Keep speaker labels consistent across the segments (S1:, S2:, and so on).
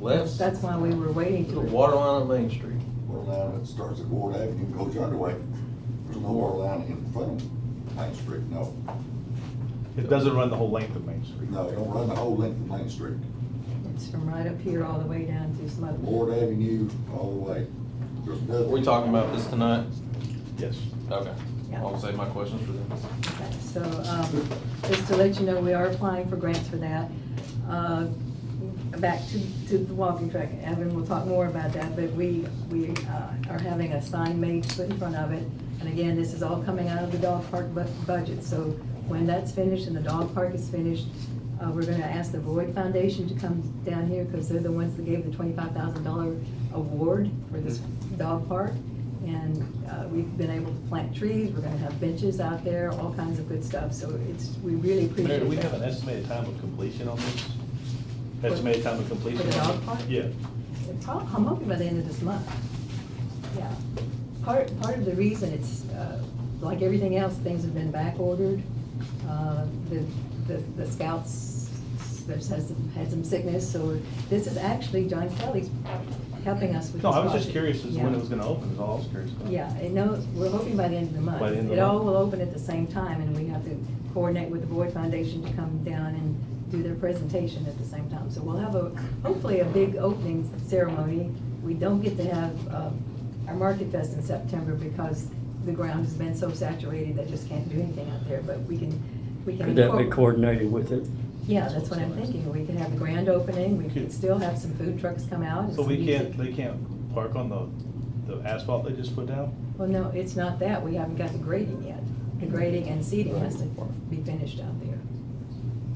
S1: Left.
S2: That's why we were waiting
S1: The
S2: to.
S1: water line on Main Street.
S3: Well, now it starts at Ward Avenue, goes the other way. There's no water line in front of Main Street, no.
S4: It doesn't run the whole length of Main Street.
S3: No, it don't run the whole length of Main Street.
S2: It's from right up here all the way down to Smoke.
S3: Ward Avenue all the way. There's
S1: Are
S3: nothing.
S1: we talking about this tonight?
S4: Yes.
S1: Okay.
S2: Yeah.
S1: I'll save my questions for them.
S2: Okay, So, um, just to let you know, we are applying for grants for that. Uh, Back to, to the walking track, Evan will talk more about that, but we, we uh, are having a sign made put in front of it. And again, this is all coming out of the dog park bu- budget, so when that's finished and the dog park is finished, uh, we're gonna ask the Void Foundation to come down here, because they're the ones that gave the twenty-five thousand dollar award for this dog park. And uh, we've been able to plant trees, we're gonna have benches out there, all kinds of good stuff, so it's, we really appreciate
S4: Mayor,
S2: that.
S4: do we have an estimated time of completion on this? Estimated time of completion?
S2: For the dog park?
S4: Yeah.
S2: It prob- I'm hoping by the end of this month. Yeah. Part, part of the reason it's, uh, like everything else, things have been backordered. Uh, The the the scouts, there's has, had some sickness, so this is actually John Kelly's helping us with this
S4: No, I was
S2: project.
S4: just curious as to when
S2: Yeah.
S4: it was gonna open, is all I was curious about.
S2: Yeah, it knows, we're hoping by the end of the month.
S4: By the end of the
S2: It all
S4: month.
S2: will open at the same time, and we have to coordinate with the Boyd Foundation to come down and do their presentation at the same time. So we'll have a, hopefully a big opening ceremony. We don't get to have um, our Market Fest in September because the ground has been so saturated, they just can't do anything out there, but we can, we can.
S5: Could that be
S2: incorporate-
S5: coordinated with it?
S2: Yeah, that's what I'm thinking. We can have a grand opening, we could
S4: Could-
S2: still have some food trucks come out and
S4: So
S2: some
S4: we
S2: music.
S4: can't, they can't park on the, the asphalt they just put down?
S2: Well, no, it's not that, we haven't got the grading yet. The grading and seeding has to be finished out there.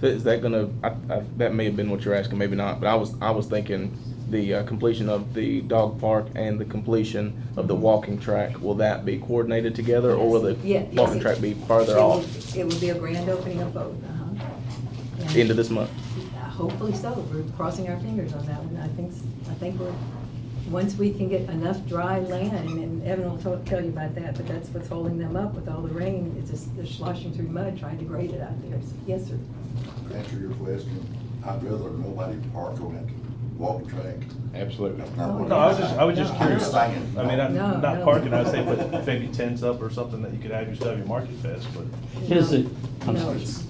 S6: So Is that gonna, I, I, that may have been what you're asking, maybe not, but I was, I was thinking the uh, completion of the dog park and the completion of the walking track, will that be coordinated together or will the
S2: Yeah, yes,
S6: walking
S2: it-
S6: track be
S2: it
S6: farther
S2: will-
S6: off
S2: It will be a grand opening of both, uh-huh.
S6: at
S2: And uh,
S6: the end of this month?
S2: Hopefully so, we're crossing our fingers on that one, I think, I think we're, once we can get enough dry land, and Evan will tell, tell you about that, but that's what's holding them up with all the rain, it's just, they're sloshing through mud trying to grade it out there, So, yes, sir.
S3: To Answer your question, I'd rather nobody park on that walking track.
S6: Absolutely.
S3: That's not what
S4: Oh, No, I was
S3: I'm
S4: just, I was just
S2: No,
S3: I'm
S4: curious.
S3: just
S4: I
S3: saying,
S4: mean, I-
S2: No,
S4: not
S2: no.
S4: parking, I'd say put maybe tents up or something that you could have yourself, your market fest, but.
S5: Is
S2: No,
S5: it- I'm
S2: No,
S5: sorry.
S2: it's,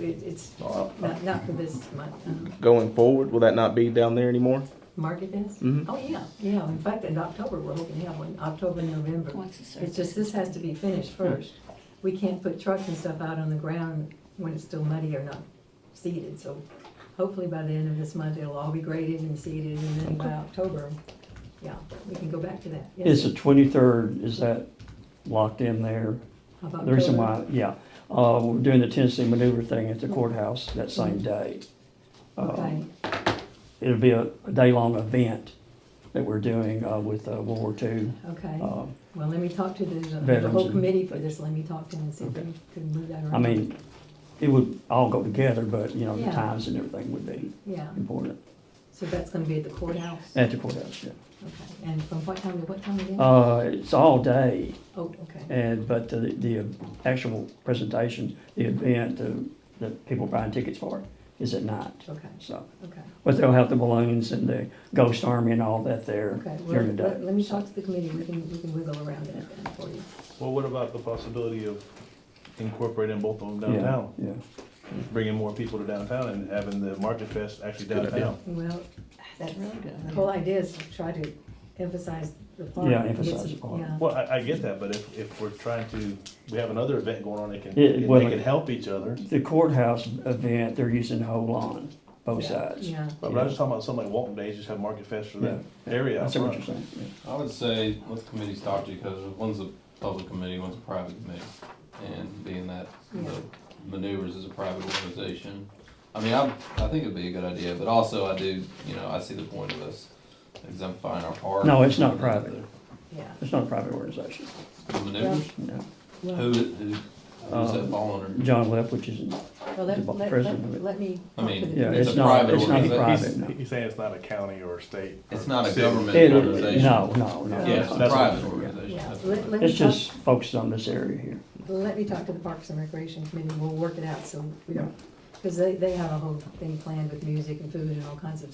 S2: it- it's not, not for this month, uh-huh.
S6: Going forward, will that not be down there anymore?
S2: Market this?
S5: Mm-hmm.
S6: Mhm.
S2: Oh, yeah, yeah, in fact, in October, we're hoping to have one, October, November.
S7: Once it's
S2: It's just, this has to be finished first. We can't put trucks and stuff out on the ground when it's still muddy or not seeded, so hopefully by the end of this month, it'll all be graded and seeded, and then by October, yeah, we can go back to that. Yes,
S5: Is
S2: sir.
S5: the twenty-third, is that locked in there?
S2: Of
S5: The reason
S2: October.
S5: why, yeah, uh, we're doing the Tennessee maneuver thing at the courthouse that same day.
S2: Mm-hmm.
S5: Uh,
S2: Okay,
S5: It'll be a, a day-long event that we're doing, uh, with, uh, World War II.
S2: okay.
S5: Uh,
S2: Well, let me talk to the, the
S5: Veterans
S2: whole
S5: and-
S2: committee for this, let me talk to them and see if we can move that around.
S5: I mean, it would all go together, but, you know, the
S2: Yeah.
S5: times and everything would be
S2: Yeah,
S5: important
S2: so that's gonna be at the courthouse?
S5: at the courthouse, yeah.
S2: Okay, and from what time to what time again?
S5: Uh, eh. it's all day,
S2: Oh, okay,
S5: and, but the, the actual presentation, the event, the, the people buying tickets for it is at night,
S2: okay,
S5: so.
S2: okay.
S5: But they'll have the balloons and the ghost army and all that there
S2: Okay, well,
S5: during the
S2: let,
S5: day.
S2: let me talk to the committee, we can, we can wiggle around that then for you.
S4: Well, what about the possibility of incorporating both of them
S5: Yeah,
S4: downtown?
S5: Yeah,
S4: Bringing more people to downtown and having the market fest actually
S6: Good idea.
S4: downtown?
S2: Well, that's,
S7: That's really good.
S2: the whole idea is to try to emphasize the park.
S5: Yeah, emphasize the park.
S2: Yeah.
S4: Well, I, I get that, but if, if we're trying to, we have another event going on, they can,
S5: Yeah,
S4: they
S5: well-
S4: can help each other.
S5: the courthouse event, they're using the whole lawn, both sides.
S2: Yeah,
S4: But I was talking about something like Walton Days, just have market fest for that
S5: Yeah.
S4: area
S5: I
S4: out
S5: see what
S4: front.
S5: you're saying, yeah.
S8: I would say let the committees talk to you because one's a public committee, one's a private committee. And being that
S2: Yeah.
S8: the maneuvers is a private organization, I mean, I, I think it'd be a good idea, but also I do, you know, I see the point of us exemplifying our park.
S5: No, it's not private.
S2: yeah.
S5: It's not a private organization,
S8: The maneuvers,
S5: no.
S8: who,
S2: Well,
S8: who, who's
S5: Uh,
S8: that falling under?
S5: John Leftwich is,
S2: Well, let,
S5: the
S2: let,
S5: president of
S2: let,
S5: it.
S2: let me
S8: I
S2: talk to
S8: mean,
S2: the
S5: yeah,
S2: committee.
S5: it's
S8: a
S5: not,
S8: private
S5: it's not
S8: organization.
S5: private, no.
S4: He's, he's saying it's not a county or a state. or
S8: It's not a
S4: city.
S8: government
S5: It-
S8: organization.
S5: No, no, no.
S8: Yeah, it's a
S4: That's-
S8: private
S2: Yeah,
S8: organization.
S2: let, let me
S5: It's
S2: talk,
S5: just focused on this area here.
S2: let me talk to the Parks and Recreation Committee, we'll work it out, so we don't, because they, they have a whole thing planned with music and food and all kinds of